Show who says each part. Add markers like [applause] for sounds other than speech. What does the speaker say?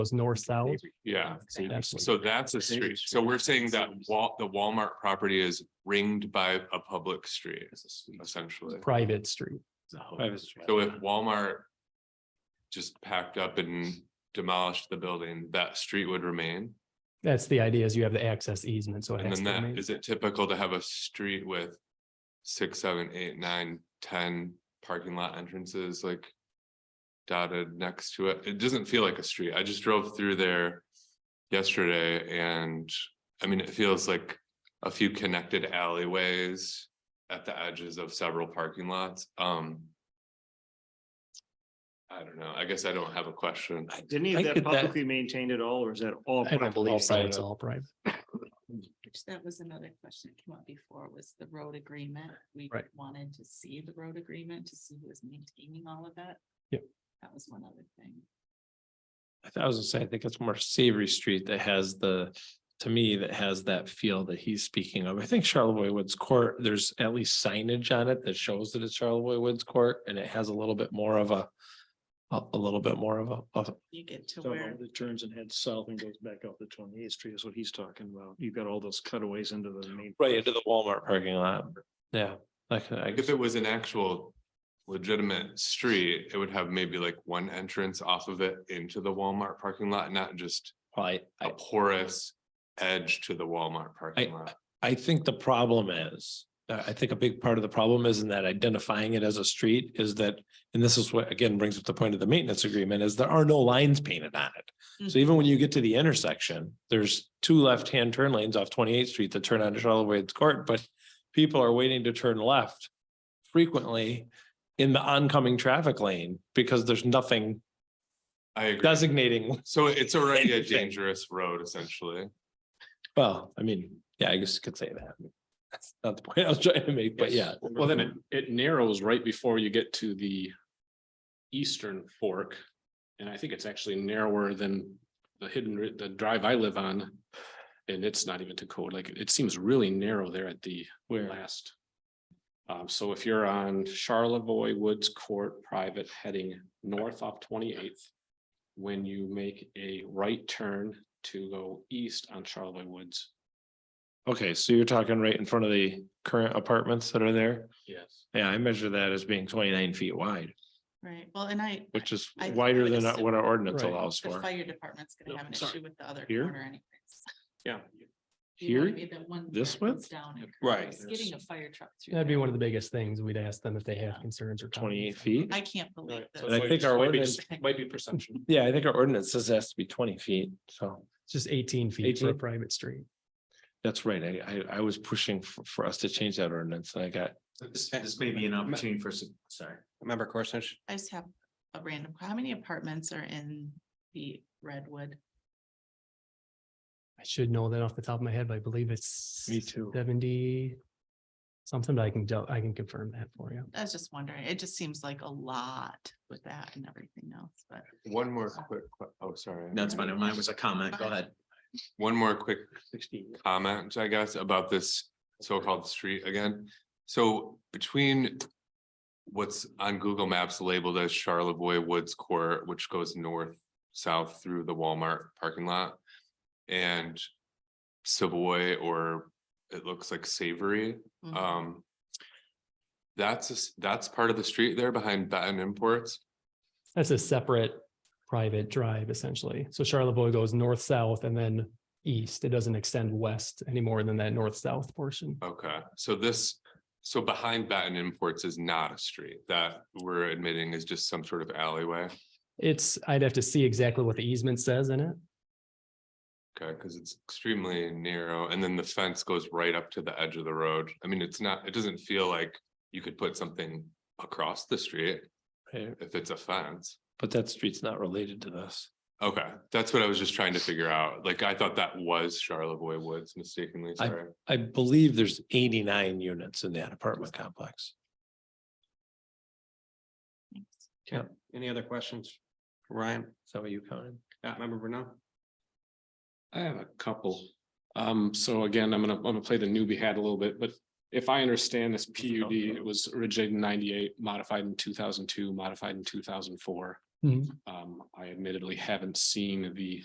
Speaker 1: was north south.
Speaker 2: Yeah,
Speaker 1: See, that's-
Speaker 2: so that's a street. So we're saying that Wal- the Walmart property is ringed by a public street essentially.
Speaker 1: private street.
Speaker 2: So if Walmart just packed up and demolished the building, that street would remain.
Speaker 1: That's the idea is you have the access easement, so it
Speaker 2: And
Speaker 1: has
Speaker 2: then
Speaker 1: to
Speaker 2: that,
Speaker 1: remain.
Speaker 2: is it typical to have a street with six, seven, eight, nine, ten parking lot entrances like dotted next to it? It doesn't feel like a street. I just drove through there yesterday and I mean, it feels like a few connected alleyways at the edges of several parking lots. Um I don't know. I guess I don't have a question.
Speaker 3: Is any
Speaker 4: I
Speaker 3: of that
Speaker 4: get that.
Speaker 3: publicly maintained at all, or is that all?
Speaker 1: I don't
Speaker 3: private?
Speaker 1: believe so. It's all private.
Speaker 5: Which that was another question that came up before was the road agreement. We
Speaker 1: Right.
Speaker 5: wanted to see the road agreement to see who was maintaining all of that.
Speaker 1: Yep.
Speaker 5: That was one other thing.
Speaker 4: I thought- I was gonna say, I think it's more savory street that has the, to me, that has that feel that he's speaking of. I think Charlevoix Woods Court, there's at least signage on it that shows that it's Charlevoix Woods Court and it has a little bit more of a. A, a little bit more of a, of,
Speaker 5: You get to
Speaker 3: Talking
Speaker 5: where,
Speaker 3: about The turns and heads south and goes back out the twenty eighth street is what he's talking about. You've got all those cutaways into the main.
Speaker 4: right into the Walmart parking lot. Yeah, like, I
Speaker 2: Like if
Speaker 4: guess,
Speaker 2: it was an actual legitimate street, it would have maybe like one entrance off of it into the Walmart parking lot, not just
Speaker 4: I,
Speaker 2: a
Speaker 4: I,
Speaker 2: porous edge to the Walmart parking lot.
Speaker 4: I think the problem is. uh, I I think a big part of the problem is in that identifying it as a street is that, and this is what again brings up the point of the maintenance agreement, is there are no lines painted on it. So even when you get to the intersection, there's two left-hand turn lanes off Twenty-Eighth Street that turn onto Charlotte Wade's Court, but people are waiting to turn left frequently in the oncoming traffic lane because there's nothing
Speaker 2: I agree.
Speaker 4: designating,
Speaker 2: So it's already a
Speaker 4: [laughs] Interesting.
Speaker 2: dangerous road essentially.
Speaker 4: well, I mean, yeah, I guess you could say that. [laughs] That's not the point I was trying to make, but yeah.
Speaker 6: Well, then it, it narrows right before you get to the eastern fork. And I think it's actually narrower than the hidden, ri- the drive I live on. And it's not even to code, like it seems really narrow there at the last. Um, so if you're on Charlevoix Woods Court Private heading north off twenty-eighth. When you make a right turn to go east on Charlevoix Woods.
Speaker 4: Okay, so you're talking right in front of the current apartments that are there?
Speaker 6: Yes.
Speaker 4: Yeah, I measure that as being twenty-nine feet wide,
Speaker 5: right, well, and I,
Speaker 4: which is
Speaker 5: I- I
Speaker 4: wider
Speaker 5: would
Speaker 4: than
Speaker 5: assume-
Speaker 4: what our ordinance
Speaker 1: Right.
Speaker 4: allows
Speaker 5: the
Speaker 4: for.
Speaker 5: fire department's
Speaker 6: No,
Speaker 5: gonna have an
Speaker 6: sorry.
Speaker 5: issue with the other
Speaker 4: Here?
Speaker 5: corner anyways. [laughs]
Speaker 6: Yeah.
Speaker 5: You wanna
Speaker 4: Here?
Speaker 5: be the one
Speaker 4: This
Speaker 5: that goes
Speaker 4: width?
Speaker 5: Down. and curves.
Speaker 4: Right.
Speaker 5: Getting a fire truck through.
Speaker 1: That'd be
Speaker 5: there.
Speaker 1: one of the biggest things. We'd ask them if they have concerns or.
Speaker 4: Twenty-eight
Speaker 1: comments.
Speaker 4: feet?
Speaker 5: I can't believe
Speaker 6: So
Speaker 4: And I
Speaker 5: this.
Speaker 6: it might
Speaker 4: think
Speaker 6: just-
Speaker 4: our
Speaker 6: might be
Speaker 4: ordinance-
Speaker 6: just- Might be perception.
Speaker 4: Yeah, I think our ordinance says it has to be twenty feet, so
Speaker 1: It's just eighteen feet for a
Speaker 4: 18?
Speaker 1: private street.
Speaker 4: that's right. I, I, I was pushing for, for us to change that ordinance and I got,
Speaker 7: This, this may be an opportunity for, some- sorry. Member Corson,
Speaker 5: I just have a random, how many apartments are in the Redwood?
Speaker 1: I should know that off the top of my head, but I believe it's
Speaker 4: me too.
Speaker 1: seventy. Something that I can, do- I can confirm that for you.
Speaker 5: I was just wondering, it just seems like a lot with that and everything else, but.
Speaker 2: One more quick, que- oh, sorry.
Speaker 7: that's fine. Mine was a comment. Go ahead.
Speaker 2: One more quick comment, I guess, about this so-called street again. So between what's on Google Maps labeled as Charlevoix Woods Court, which goes north, south through the Walmart parking lot and Savoy or it looks like Savory,
Speaker 5: mhm.
Speaker 2: um. That's, a s- that's part of the street there behind Baton Imports.
Speaker 1: That's a separate private drive essentially. So Charlevoix goes north, south and then east. It doesn't extend west any more than that north, south portion.
Speaker 2: Okay, so this, so behind Baton Imports is not a street that we're admitting is just some sort of alleyway.
Speaker 1: It's, I'd have to see exactly what the easement says in it.
Speaker 2: Okay, because it's extremely narrow and then the fence goes right up to the edge of the road. I mean, it's not, it doesn't feel like you could put something across the street
Speaker 4: Right,
Speaker 2: if it's a fence.
Speaker 4: But that street's not related to this.
Speaker 2: Okay, that's what I was just trying to figure out. Like, I thought that was Charlevoix Woods mistakenly,
Speaker 4: I-
Speaker 2: sorry.
Speaker 4: I believe there's eighty-nine units in that apartment complex.
Speaker 5: Thanks.
Speaker 7: Okay. Any other questions? Ryan,
Speaker 4: Is that what you counted?
Speaker 7: yeah, member Bruno?
Speaker 6: I have a couple. Um, so again, I'm gonna, I'm gonna play the newbie hat a little bit, but if I understand this PUD, it was originated in ninety-eight, modified in two thousand two, modified in two thousand four.
Speaker 1: Mhm.
Speaker 6: Um, I admittedly haven't seen the